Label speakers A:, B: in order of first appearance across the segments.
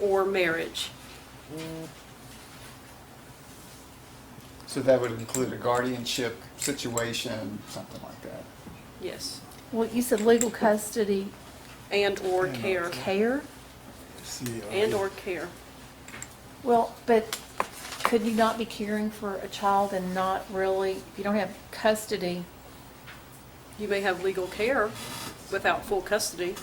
A: or marriage.
B: So that would include a guardianship situation, something like that.
A: Yes.
C: Well, you said legal custody
A: And/or
B: And or
A: care.
C: care?
A: And/or care.
C: Well, but could you not be caring for a child and not really, if you don't have custody?
A: You may have legal care without full custody.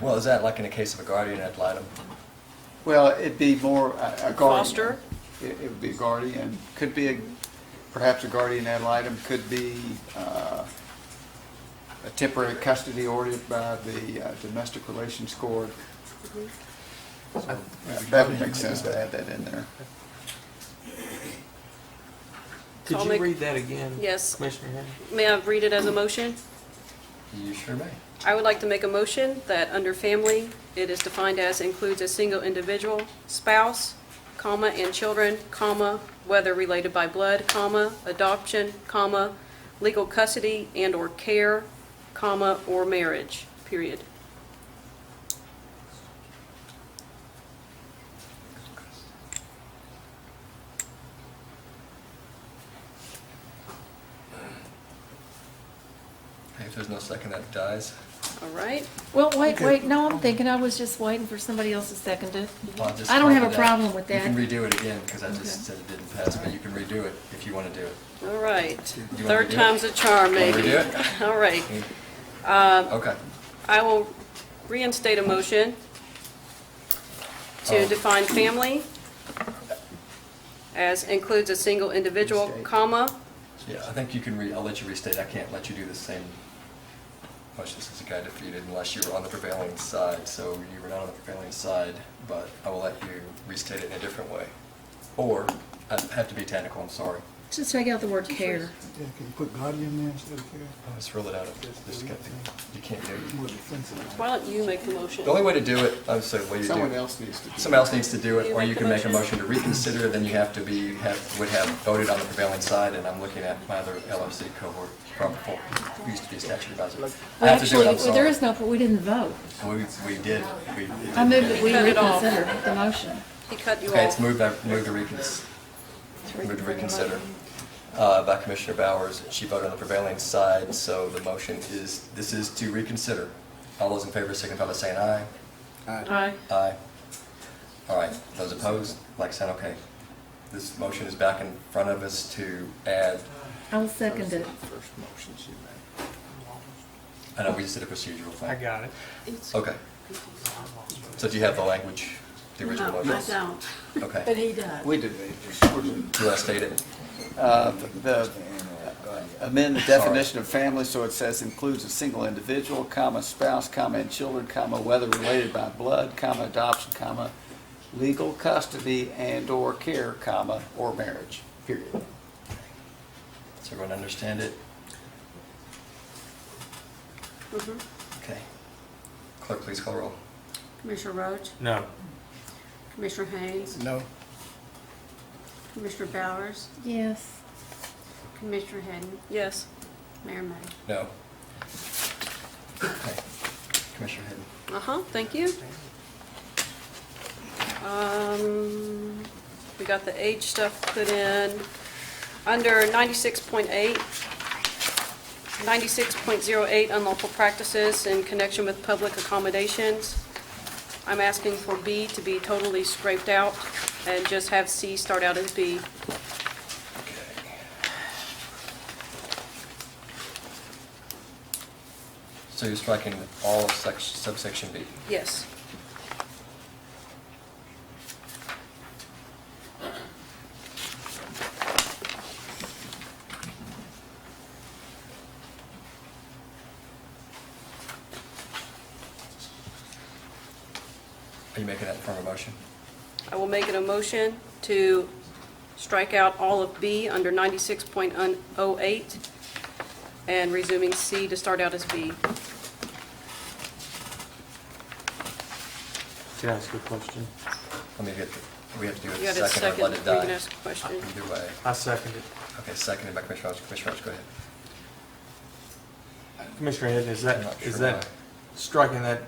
D: Well, is that like in the case of a guardian ad litem?
B: Well, it'd be more uh, a a guardian.
A: Foster?
B: It it would be a guardian, could be a- perhaps a guardian ad litem, could be uh, a temporary custody ordered by the uh, domestic relations court. Yeah,
E: Mm-hmm.
B: That would make sense to add that in there.
A: So I'll
F: Could you
A: make-
F: read that again?
A: Yes.
F: Commissioner Henry?
A: May I read it as a motion?
D: You sure may.
A: I would like to make a motion that under family, it is defined as includes a single individual, spouse, comma, and children, comma, whether related by blood, comma, adoption, comma, legal custody and/or care, comma, or marriage, period.
D: Hey, If there's no second, that dies.
A: All right?
C: Well, wait,
B: Okay.
C: wait, no, I'm thinking, I was just waiting for somebody else to second it.
D: Well, just
C: I don't have
D: copy
C: a
D: that.
C: problem with
D: You can
C: that.
D: redo it again, because I
C: Okay.
D: just said it didn't pass, but you can redo it if you want to do it.
A: All right.
D: me to
A: Third
D: do it?
A: time's a charm,
D: Want me
A: maybe.
D: to do it?
A: All right.
C: Um,
D: Okay.
A: I will reinstate a motion to
D: Oh.
A: define family as includes a single individual,
B: State.
A: comma,
D: Yeah, I think you can re, I'll let you restate. I can't let you do the same motion since the guy defeated unless you were on the prevailing side. So you were not on the prevailing side, but I will let you restate it in a different way. Or, I have to be technical, I'm sorry.
C: Just take out the word care.
E: Yeah, can you put guardian there instead of care?
D: Let's rule it out. Just get the- You can't do
E: It's
D: it.
E: more defensive.
A: why don't you make the motion?
D: The only way to do it, I'm sorry, what do you do?
B: Someone else needs to do
D: Someone else needs to do it,
A: You
D: or
A: make
D: you
A: the
D: can make a
A: motion.
D: motion to reconsider, then you have to be, have, would have voted on the prevailing side, and I'm looking at my other LRC cohort from before, who used to be a statute advisor. I
C: Well,
D: have to do
C: actually,
D: it, I'm
C: There
D: sorry.
C: is no, we didn't vote.
D: We, we did, we.
C: I moved that we
A: Cut it off.
C: reconsider the motion.
A: He cut you
D: Okay, it's
A: off.
D: moved, by- moved to reconsider, moved to reconsider, uh, by Commissioner Bowers. She voted on the prevailing side, so the motion is, this is to reconsider. All those in favor signify by saying aye.
A: Aye.
D: Aye. All right, those opposed, like sign, okay. This motion is back in front of us to add,
C: I'll second it.
B: First motion she made.
D: I know we just did a procedural thing.
F: I got it.
D: Okay. So do you have the language, the original motion?
A: don't.
D: Okay,
C: he does.
B: We did.
D: do I state it?
B: Uh, The, amend the definition of family so it says includes a single individual, comma, spouse, comma, and children, comma, whether related by blood, comma, adoption, comma, legal custody and/or care, comma, or marriage, period.
D: Does everyone understand it?
G: Mm-hmm.
D: Okay. Clerk, please call roll.
G: Commissioner Roach,
F: No.
G: Commissioner Haynes,
E: No.
G: Commissioner Bowers,
C: Yes.
G: Commissioner Hadden,
A: Yes.
G: Mayor May.
D: No. Okay. Commissioner Hayden.
A: Uh-huh, thank you. Um, we got the age stuff put in. Under 96.8, 96.08 unlawful practices in connection with public accommodations. I'm asking for B to be totally scraped out and just have C start out as B.
D: Okay. So you're striking all of sec- subsection B.
A: Yes.
D: Are you making that in form of motion?
A: I will make it a motion to strike out all of B under 96.08 and resuming C to start out as B.
F: Can I ask you a question?
D: Let me get, the- we have to do
A: You
D: it
A: got a
D: second or
A: second,
D: let
A: we
D: it die.
A: can ask a question.
D: Either way.
F: I second it.
D: Okay, seconded by Commissioner Rogers. Commissioner Rogers, go ahead.
F: Commissioner Hadden, is
D: I'm
F: that,
D: not
F: is
D: sure
F: that,
D: why.
F: striking that